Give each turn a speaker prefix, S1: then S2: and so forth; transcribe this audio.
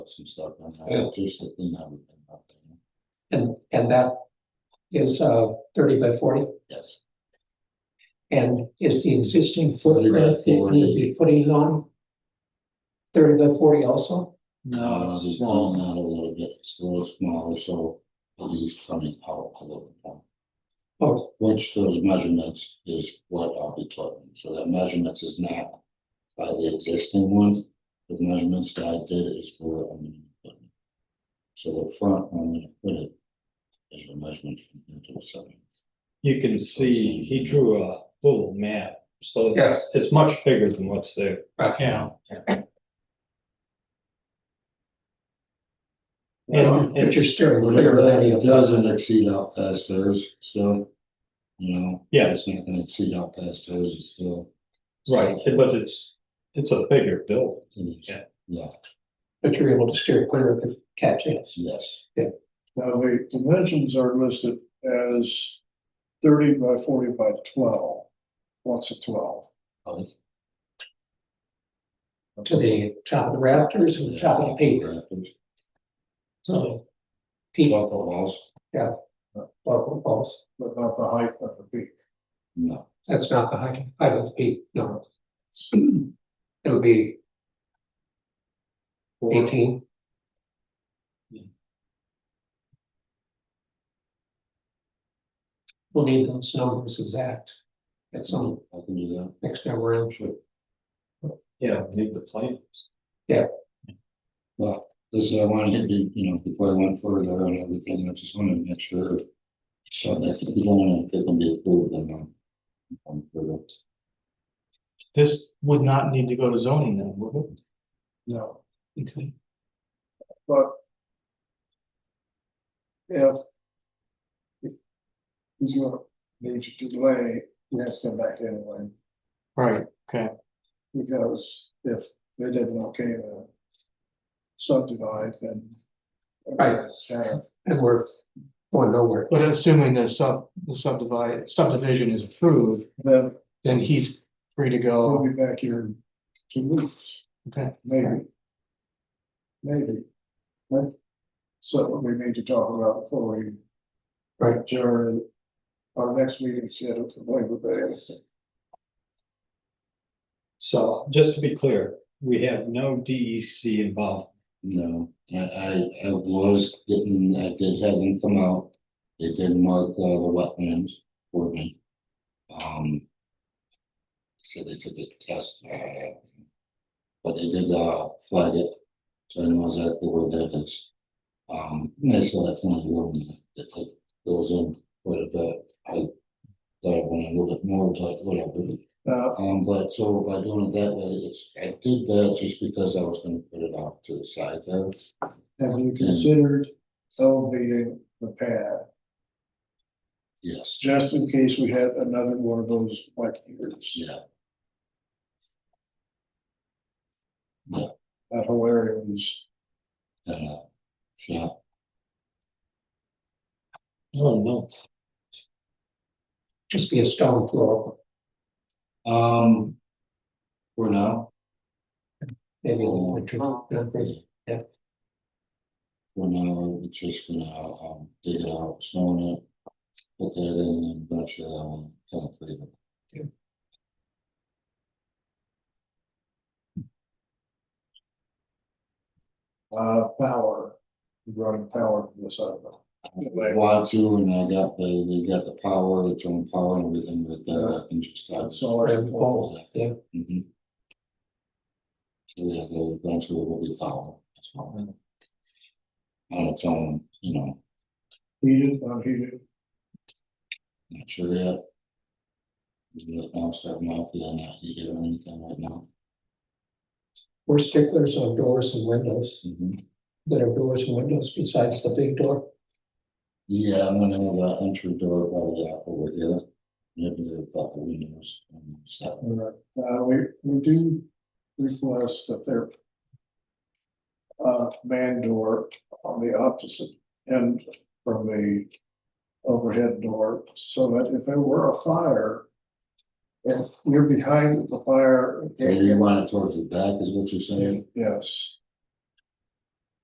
S1: some stuff on
S2: Yeah.
S1: that, just the thing that we've been updating.
S2: And, and that is uh thirty by forty,
S1: Yes,
S2: and is the existing
S1: 40 by
S2: footprint that you're putting on thirty by forty also?
S1: uh,
S3: No,
S1: we've
S3: it's
S1: gone
S3: not.
S1: out a little bit, it's a little smaller, so the leaves coming out a little more.
S2: Oh,
S1: Which those measurements is what I'll be plugging, so that measurements is not by the existing one. The measurements that I did is for, I'm gonna put. So the front, I'm gonna put it as a measurement from here to the seven.
S3: You can see, he drew a little map, so it's, it's much bigger than what's there.
S2: yeah.
S3: And-
S2: uh, But you're steering clear
S1: Whatever
S2: of
S1: that, it
S2: that.
S1: doesn't exceed out past theirs still, you know?
S3: Yeah.
S1: It's not gonna exceed out past theirs, it's still.
S3: Right, but it's, it's a bigger building.
S1: Yeah,
S3: Yeah.
S2: But you're able to steer clear of the catch, yes.
S1: yes,
S4: Now, the dimensions are listed as thirty by forty by twelve. What's a twelve?
S1: Oh,
S2: To the top of the rafters and the top of the peak,
S1: rafters,
S2: so. Peak,
S1: Twelve foot walls,
S2: buckle balls,
S4: But not the height of the peak.
S1: no,
S2: that's not the height, height of the peak, no. It'll be
S3: Or-
S2: eighteen, we'll need those numbers exact. At some,
S3: Oh.
S1: I can do that,
S2: next time around,
S1: sure.
S3: Yeah, need the plane.
S1: Well, this is, I wanted to, do, you know, before I went further on everything, I just wanted to make sure. So that if you don't want to, it can be approved and, um. um, for the-
S5: This would not need to go to zoning then, would
S4: No.
S5: it? Okay.
S4: But if if he's gonna need you to delay, he has to come back anyway,
S5: Right, okay,
S4: because if they didn't okay to subdivide, then
S2: Right.
S4: it's kind of
S2: and we're going nowhere.
S5: but assuming the sub, the subdivide, subdivision is approved,
S4: Then
S5: then he's free to
S4: we'll
S5: go,
S4: be back here in two weeks.
S5: okay,
S4: Maybe. Maybe. But so we need to talk about before we.
S2: Right.
S4: adjourn. our next meeting scheduled for Labor Day.
S3: So just to be clear, we have no DEC involved.
S1: No, I, I, I was getting, I did have them come out, they did mark all the wetlands for me. Um. So they took a test, and all that. But they did, uh, flag it, so I know exactly where that is. Um, and I saw that one room, it, it goes in quite a bit, I thought I wanted a little bit more, but whatever.
S4: Uh,
S1: Um, but so by doing it that way, it's, I did that just because I was gonna put it off to the side there.
S4: have you considered elevating the pad
S1: Yes,
S4: just in case we had another one of those wet years?
S1: yeah,
S4: That whole area was
S1: and, uh, yeah,
S3: Oh, no.
S2: Just be a stone floor,
S1: um. For now,
S2: maybe a little bit of concrete.
S1: for now, we're just gonna, um, dig it out, stone it. Put that in and eventually I will concrete it.
S4: uh power, running power from the side of it.
S1: Want to, and I got the, we got the power, its own power and everything with that, I can just have.
S4: That's all I
S2: Right,
S4: recall.
S2: yeah.
S1: Mhm. So yeah, the eventually will be power, that's all. On its own, you know,
S4: Heated, unheated,
S1: not sure yet. Right now, starting off, yeah, not heated or anything right now.
S2: We're sticklers on doors and windows,
S1: Mhm.
S2: that are doors and windows besides the big door.
S1: Yeah, I'm gonna have that entry door probably out over here. Maybe the couple windows and stuff.
S4: All right. Uh, we, we do request that their uh, man door on the opposite end from the overhead door, so that if there were a fire, if you're behind the fire,
S1: So you want it towards the back is what you're saying?
S4: yes,